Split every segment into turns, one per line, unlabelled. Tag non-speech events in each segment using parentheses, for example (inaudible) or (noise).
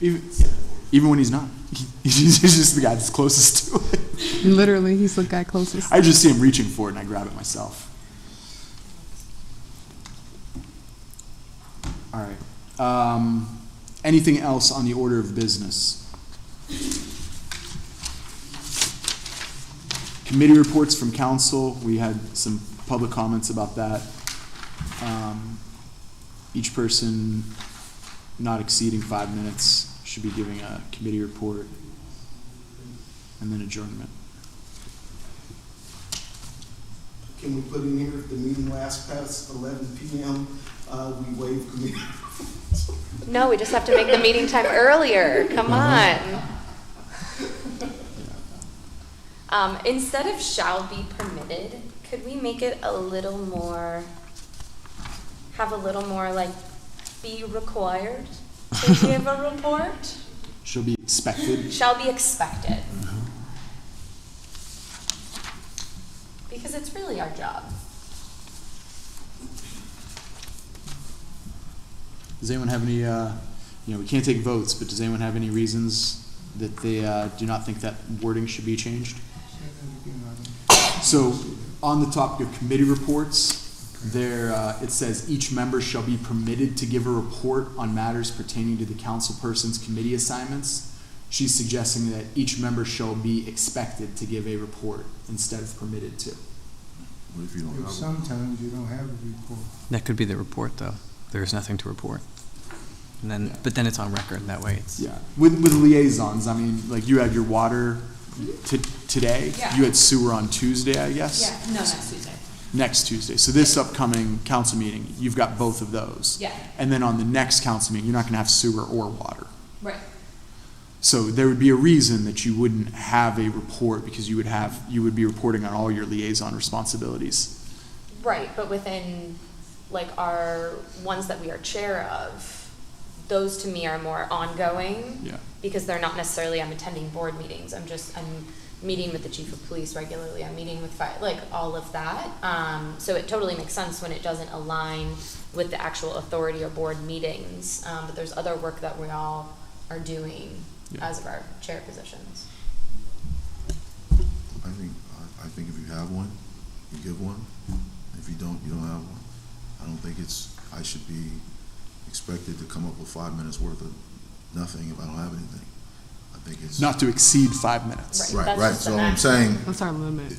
Even, even when he's not. (laughs) He's just the guy that's closest to it.
Literally, he's the guy closest.
I just see him reaching for it and I grab it myself. All right. Um, anything else on the order of business? Committee reports from council. We had some public comments about that. Um, each person not exceeding five minutes should be giving a committee report and then adjournment.
Can we put in here, if the meeting lasts past eleven PM, uh, we waive committee?
No, we just have to make the meeting time earlier. Come on. Um, instead of shall be permitted, could we make it a little more, have a little more like be required to give a report?
She'll be expected.
Shall be expected. Because it's really our job.
Does anyone have any, uh, you know, we can't take votes, but does anyone have any reasons that they uh, do not think that wording should be changed? So, on the topic of committee reports, there, uh, it says each member shall be permitted to give a report on matters pertaining to the council person's committee assignments. She's suggesting that each member shall be expected to give a report instead of permitted to.
What if you don't
If
have one?
Sometimes you don't have a report.
That could be the report, though. There is nothing to report. And then, but then it's on record, that way it's.
Yeah, with, with liaisons, I mean, like you had your water t- today.
Yeah.
You had sewer on Tuesday, I guess.
Yeah, no, next Tuesday.
Next Tuesday. So this upcoming council meeting, you've got both of those.
Yeah.
And then on the next council meeting, you're not going to have sewer or water.
Right.
So there would be a reason that you wouldn't have a report because you would have you would be reporting on all your liaison responsibilities.
Right, but within like our ones that we are chair of, those to me are more ongoing.
Yeah.
Because they're not necessarily I'm attending board meetings. I'm just I'm meeting with the chief of police regularly. I'm meeting with fire, like all of that. Um, so it totally makes sense when it doesn't align with the actual authority or board meetings. Um, but there's other work that we all are doing
Yeah.
as of our chair positions.
I think, I, I think if you have one, you give one. If you don't, you don't have one. I don't think it's, I should be expected to come up with five minutes worth of nothing if I don't have anything. I think it's.
Not to exceed five minutes.
Right,
Right,
that's
right,
just the
so I'm
maximum.
saying,
That's our limit.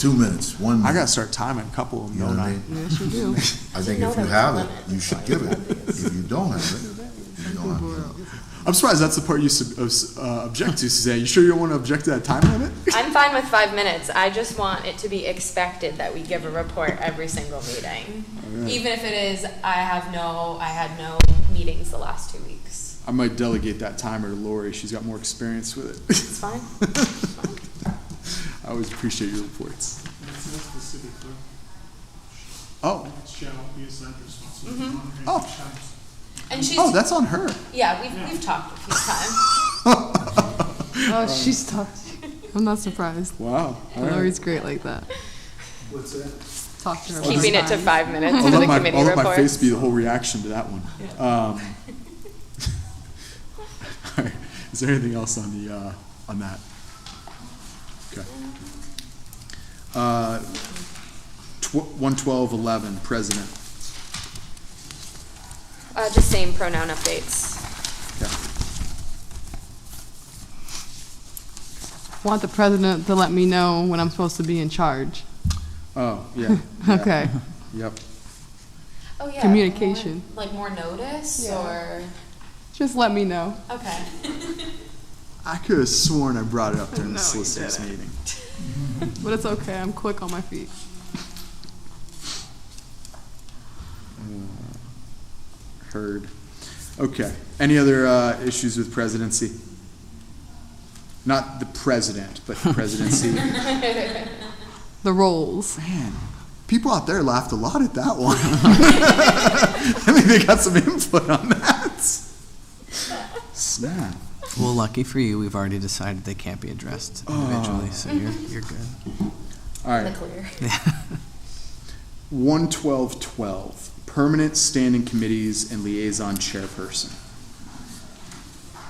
two minutes,
I
one minute.
gotta start timing a couple of them,
You know
don't
what
I?
I mean?
Yes, you do.
I think
know
if you
that's
have
the
it,
limit.
you should give it. If you don't have it, you don't have it.
I'm surprised that's the part you sub- uh, object to, Suzanne. You sure you don't want to object to that time limit?
I'm fine with five minutes. I just want it to be expected that we give a report every single meeting. Even if it is, I have no, I had no meetings the last two weeks.
I might delegate that timer to Lori. She's got more experience with it.
It's fine.
I always appreciate your reports.
It's not specific, though.
Oh,
It shall be assigned responsibility.
Mhm.
monitoring
Oh.
the shall's.
And she's,
oh, that's on her.
yeah, we've, we've talked a few times.
Oh, she's tough. I'm not surprised.
Wow. All right.
Lori's great like that.
What's that?
Talk to her. about
Keeping it to
time.
five (laughs) minutes
I'll
in the
let my,
committee
I'll let my face
reports.
be the whole reaction to that one. Um, (laughs) all right. Is there anything else on the uh, on that? Okay. Uh, tw- one twelve eleven president.
Uh, just same pronoun updates.
Okay.
Want the president to let me know when I'm supposed to be in charge.
Oh yeah. yeah.
(laughs) Okay.
Yep.
Oh, yeah.
Communication.
more- Like more notice
Yeah.
or,
Just let me know.
okay.
I could have sworn I brought it up during the
No, you
solicitors
didn't.
meeting.
But it's okay. I'm quick on my feet.
Uh, Heard. Okay. Any other uh, issues with presidency? Not the president, but the presidency.
(laughs)
The roles.
Man, people out there laughed a lot at that one. (laughs) I mean, they got some input on that. Snap.
Well, lucky for you, we've already decided they can't be addressed individually, so you're, you're good.
All
In the
right.
clear.
(laughs)
One twelve twelve. Permanent standing committees and liaison chairperson.